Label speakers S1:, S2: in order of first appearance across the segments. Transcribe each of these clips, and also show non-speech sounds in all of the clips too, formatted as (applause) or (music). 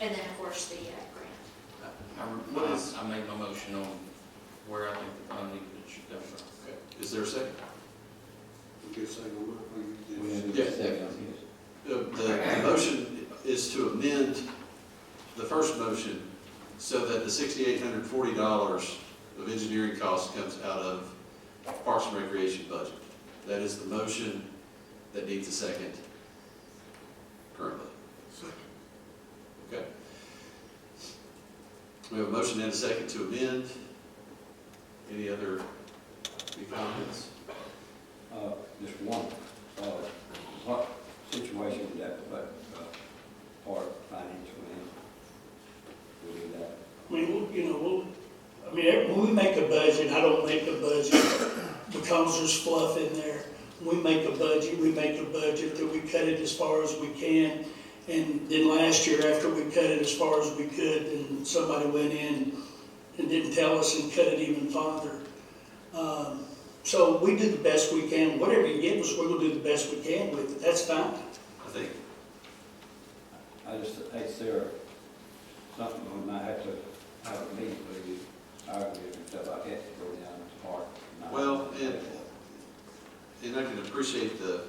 S1: And then, of course, the uh, grant.
S2: I,
S3: What
S2: I
S3: is-
S2: Um, I made my motion on where I think the funding should come from.
S3: Is there a second?
S4: We get a second on that, we
S5: We
S4: get-
S5: need
S3: Yeah.
S5: a second.
S3: The, the motion is to amend the first motion so that the sixty-eight hundred forty dollars of engineering costs comes out of Parks and Recreation budget. That is the motion that needs a second currently. Okay. We have a motion and a second to amend. Any other, any comments?
S5: Uh, just one, uh, what situation would that put, uh, part financial in? Would do that?
S6: I mean, we'll- you know, we'll, I mean, when we make a budget, I don't make a budget because there's fluff in there. We make a budget, we make a budget that we cut it as far as we can. And then last year, after we cut it as far as we could, then somebody went in and didn't tell us and cut it even farther. Um, So we do the best we can. Whatever you give us, we're gonna do the best we can with it. That's fine.
S3: I think
S5: I just, is there something when I have to have a meeting with you, argue and stuff, I have to go down to the park? and I-
S3: Well, and- And I can appreciate the,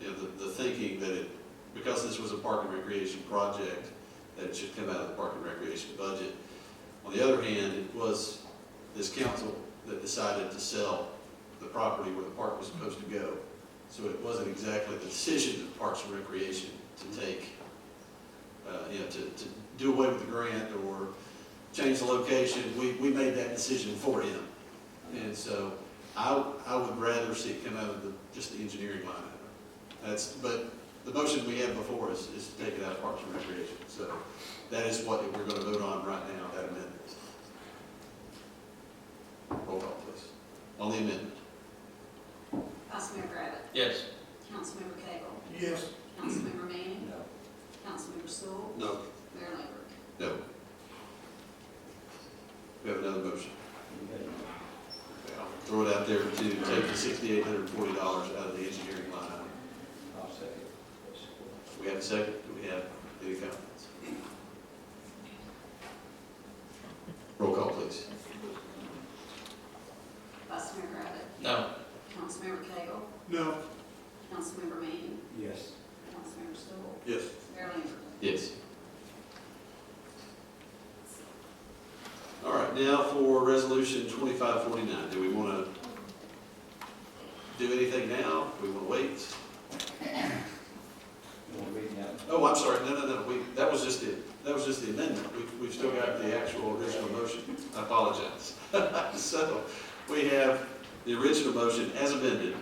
S3: you know, the, the thinking that it, because this was a park and recreation project, that it should come out of the park and recreation budget. On the other hand, it was this council that decided to sell the property where the park was supposed to go. So it wasn't exactly the decision of Parks and Recreation to take, uh, you know, to, to do away with the grant or change the location. We, we made that decision for him. And so I, I would rather see it come out of the, just the engineering line item. That's, but the motion we have before us is to take it out of Parks and Recreation. So that is what we're gonna vote on right now, that amendment. Roll call, please. On the amendment.
S7: Councilmember Abbott?
S2: Yes.
S7: Councilmember Cagle?
S6: Yes.
S7: Councilmember Manning?
S5: No.
S7: Councilmember Sewell?
S3: No.
S7: Mayor Lambert?
S3: No. We have another motion. Okay, I'll Throw it out there to take the sixty-eight hundred and forty dollars out of the engineering line item.
S5: I'll second.
S3: We have a second, do we have any comments? Roll call, please.
S7: Vice Mayor Abbott?
S2: No,
S7: Councilmember Cagle?
S4: No.
S7: Councilmember Manning?
S5: Yes.
S7: Councilmember Sewell?
S3: Yes.
S7: Mayor Lambert?
S3: Yes. All right, now for resolution twenty-five forty-nine, do we want to do anything now? Do we want to wait?
S5: You want to read that?
S3: Oh, I'm sorry, no, no, no, we, that was just the, that was just the amendment, we, we've still got the actual original motion, I apologize. (laughs) So, we have the original motion as amended,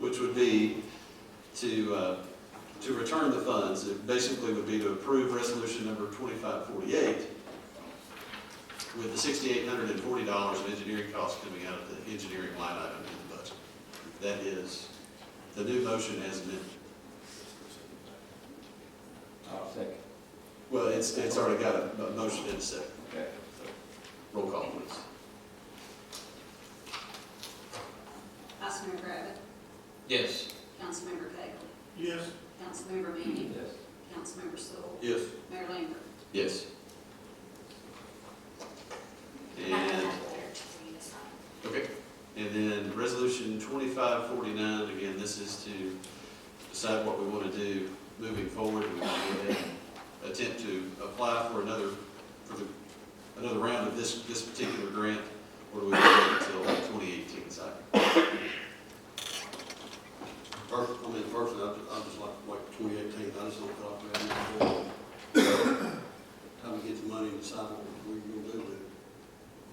S3: which would be to, uh, to return the funds, it basically would be to approve resolution number twenty-five forty-eight with the sixty-eight hundred and forty dollars of engineering costs coming out of the engineering line item in the budget. That is the new motion as amended.
S5: I'll second.
S3: Well, it's, it's already got a a motion in a second.
S5: Okay.
S3: Roll call, please.
S7: Councilmember Abbott?
S2: yes.
S7: Councilmember Cagle?
S6: Yes.
S7: Councilmember Manning?
S5: Yes.
S7: Councilmember Sewell?
S3: Yes.
S7: Mayor Lambert?
S3: Yes.
S1: I have
S3: And,
S1: that there too for you to sign.
S3: okay, and then resolution twenty-five forty-nine, again, this is to decide what we want to do moving forward. We want to go ahead and attempt to apply for another, for the, another round of this, this particular grant, or do we wait until twenty eighteen cycle?
S4: First, I mean, first, I, I just like, like twenty eighteen, I just don't feel like we have any more time to get the money and decide what we're gonna do with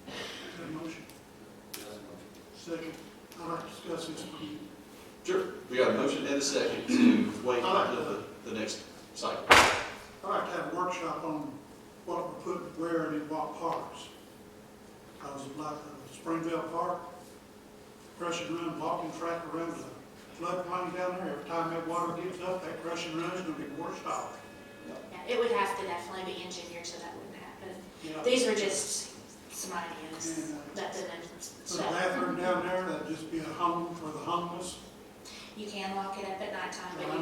S4: it.
S6: motion. Second. I'd like to discuss this with you.
S3: Sure, we got a motion and a second to wait until the, the next cycle.
S6: I'd like to have a workshop on what we put where and in what parks. I was like, uh, Springville Park, crushing run, walking track around the floodplain down there. Every time that water gets up, that crushing run's gonna be washed out.
S1: Yeah, It would have to definitely be engineered so that wouldn't happen.
S6: You know,
S1: These were just some ideas that didn't,
S6: Put a bathroom down there, that'd just be a home for the homeless.
S1: you can lock it up at nighttime, but you